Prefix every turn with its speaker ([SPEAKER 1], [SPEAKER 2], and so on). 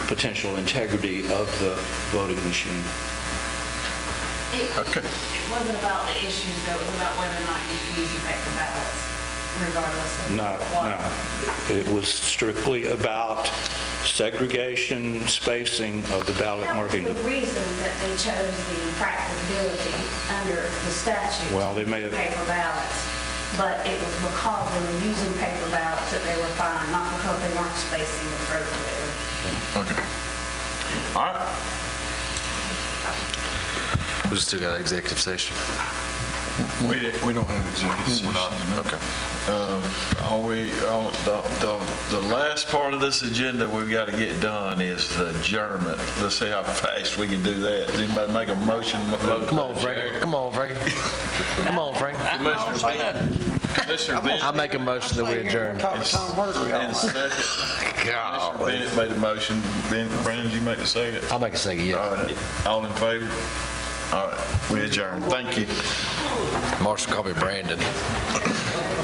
[SPEAKER 1] potential integrity of the voting machine.
[SPEAKER 2] It
[SPEAKER 3] Okay.
[SPEAKER 2] it wasn't about the issues, though, it was about whether or not you could use your paper ballots regardless of
[SPEAKER 1] No,
[SPEAKER 2] what.
[SPEAKER 1] no. It was strictly about segregation, spacing of the ballot marking.
[SPEAKER 4] That was the reason that they chose the impracticability under the statute.
[SPEAKER 1] Well, they may have-
[SPEAKER 4] Paper ballots, but it was because they were using paper ballots that they were fined, not because they weren't spacing appropriately.
[SPEAKER 3] Okay. All right.
[SPEAKER 5] We still got executive session.
[SPEAKER 3] We, we don't have executive session. Okay. Uh, Are we, uh, the, the, the last part of this agenda we've got to get done is the adjournment. Let's see how fast we can do that. Does anybody make a motion?
[SPEAKER 5] Come on, Frank. Come on, Frank. Come on, Frank.
[SPEAKER 3] Commissioner Benton. Commissioner
[SPEAKER 5] I
[SPEAKER 3] Benton.
[SPEAKER 5] make a motion that we adjourn.
[SPEAKER 3] And second.
[SPEAKER 5] Oh,
[SPEAKER 3] Commissioner Bennett made the motion. Ben, Brandon, did you make the second?
[SPEAKER 5] I'll make a second,
[SPEAKER 3] All
[SPEAKER 5] yeah.
[SPEAKER 3] right. All in favor? All right, we adjourn. Thank you.
[SPEAKER 5] Marshall, call me Brandon.